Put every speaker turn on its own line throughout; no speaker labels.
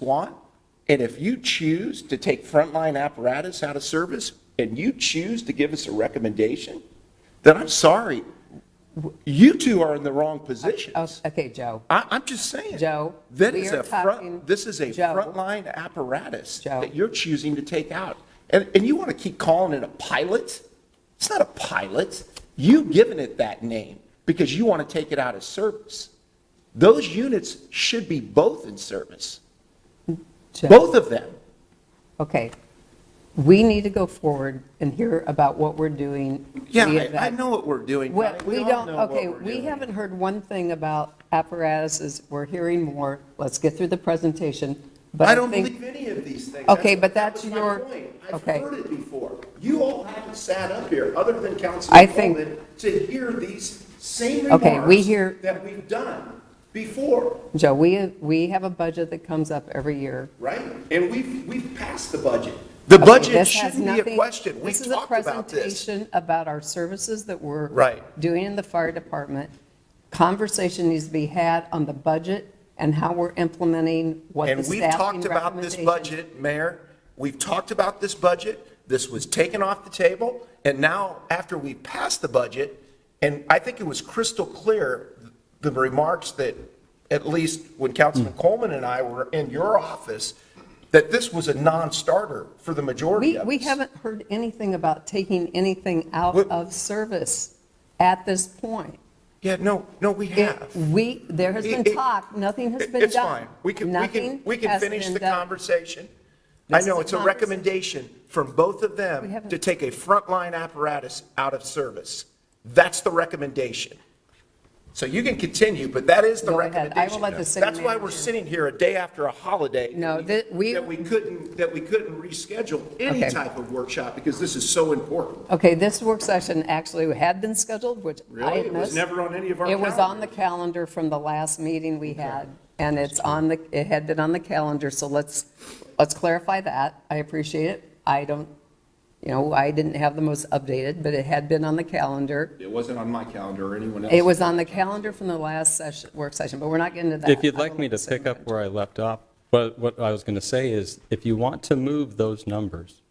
want, and if you choose to take frontline apparatus out of service, and you choose to give us a recommendation, then I'm sorry, you two are in the wrong
Oh,
positions.
Okay, Joe,
I, I'm just saying.
Joe,
That
we
is
are
a front,
talking-
this is a
Joe.
frontline apparatus
Joe.
that you're choosing to take out. And, and you want to keep calling it a pilot? It's not a pilot. You've given it that name because you want to take it out of service. Those units should be both in service,
Joe,
both of them.
okay. We need to go forward and hear about what we're doing.
Yeah,
via
I- I
that.
know what we're doing.
Well,
Connie.
we
all
don't,
know what
okay,
we're
we
doing.
haven't heard one thing about apparatuses. We're hearing more. Let's get through the presentation. But
I don't
think-
believe any of these things.
Okay, but that's
was my
your-
point.
okay.
I've heard it before. You all haven't sat up here, other than
I
Councilman
think-
Coleman, to hear these same
Okay, we
remarks
hear-
that we've done before,
Joe, we, we have a budget that comes up every year.
right? And we've, we've passed the budget. The
Okay,
budget
this has
shouldn't be a
nothing-
question. We talked about
This is
this.
a presentation about our services that we're.
Right.
Doing in the fire department. Conversation needs to be had on the budget and how we're implementing what the
And
staffing
we've talked about this
recommendation-
budget, Mayor. We've talked about this budget. This was taken off the table. And now, after we passed the budget, and I think it was crystal clear, the remarks that, at least when Councilman
Hmm.
Coleman and I were in your office, that this was a non-starter for the majority
We,
of us.
we haven't heard anything about taking anything out
What-
of service at this point.
Yeah, no, no, we
It-
have.
We, there has been
It- it-
talk, nothing has
It-
been done.
It's fine. We can, we
Nothing
can, we can
has
finish
been
the
done.
conversation. I
This is
know,
a
it's a
conversa-
recommendation from both of
We
them
haven't-
to take a frontline apparatus out of service. That's the recommendation. So you can continue, but that is the
Go ahead.
recommendation.
I will let the city
That's why we're
manager-
sitting here a day after a holiday.
No, that we-
That we couldn't, that we couldn't reschedule any
Okay.
type of workshop because this is so important.
Okay, this work session actually had been scheduled, which I
Really?
had
It was
missed.
never on any of our
It was on the calendar from the last meeting we had, and it's on the, it had been on the calendar, so let's, let's clarify that. I appreciate it. I don't, you know, I didn't have the most updated, but it had been on the calendar.
It wasn't on my calendar or anyone
It was on the calendar from the last session, work session, but we're not getting to that.
If you'd
I
like
will
me to
let the
pick up
superintendent-
where I left off, but what I was going to say is, if you want to move those numbers,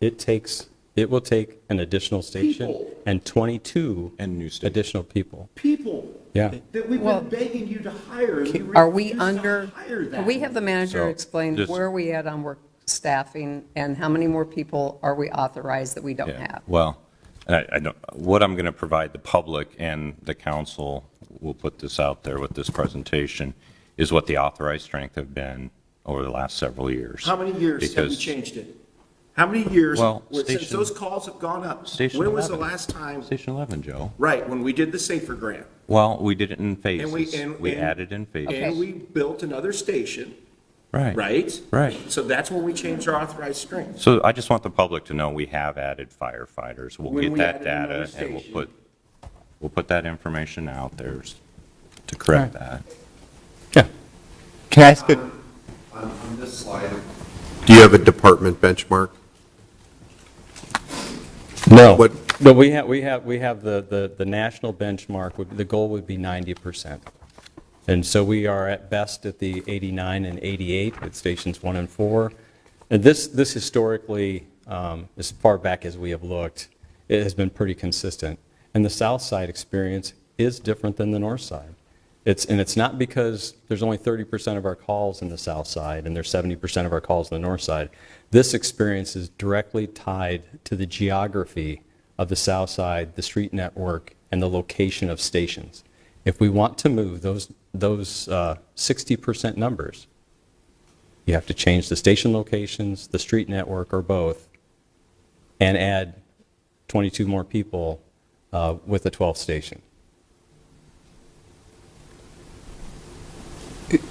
it takes, it will take an additional station
People.
and 22
And new station.
additional people.
People.
Yeah.
That we've
Well-
been begging you to hire. and you
Are we
refuse to
under,
hire
can we
them.
have the manager
So,
explain
just-
where we at on work staffing and how many more people are we authorized that we don't
Yeah,
have?
Well, and I, I don't, what I'm going to provide the public and the council, we'll put this out there with this presentation, is what the authorized strength have been over the last several years.
How many years have we
Because-
changed it? How many years,
Well,
since
station-
those calls have gone up?
Station
When was the
11.
last time,
Station 11, Joe.
right, when we did the Safer Grant?
Well, we did it in
and we
phases.
and-
We
and-
added in
And
phases.
we built another station,
Right.
right?
Right.
So that's when we changed our authorized strength.
So I just want the public to know we have added firefighters. We'll
When
get
we
that
added another
data and we'll
station.
put, we'll put that information out there to correct that.
Yeah. Can I ask a,
On on this slide,
Do you have a department benchmark?
No.
What-
But we have, we have, we have the, the, the national benchmark, would- the goal would be 90%. And so we are at best at the 89 and 88 with stations one and four. And this, this historically, um, as far back as we have looked, it has been pretty consistent. And the south side experience is different than the north side. It's, and it's not because there's only 30% of our calls in the south side and there's 70% of our calls in the north side. This experience is directly tied to the geography of the south side, the street network, and the location of stations. If we want to move those, those uh, 60% numbers, you have to change the station locations, the street network, or both, and add 22 more people uh, with a 12th station.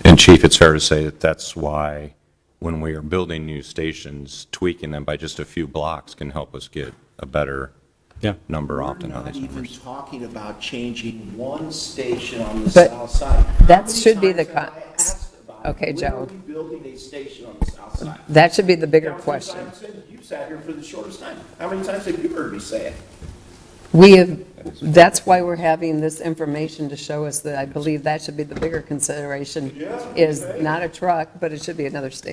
And Chief, it's fair to say that that's why, when we are building new stations, tweaking them by just a few blocks can help us get a better
Yeah.
number
We're
often on
not
these
even
numbers.
talking about changing one station on the
But
south side.
that should be the
How many times
con-
have I asked about it?
Okay,
When
Joe.
are we building a station on the south side?
That should be the bigger
Councilman
question.
Simon said You sat here for the shortest time. How many times have you heard me say it?
We have, That's why we're having this information to show us that I believe that should be the bigger consideration, is not a truck, but it should be another state.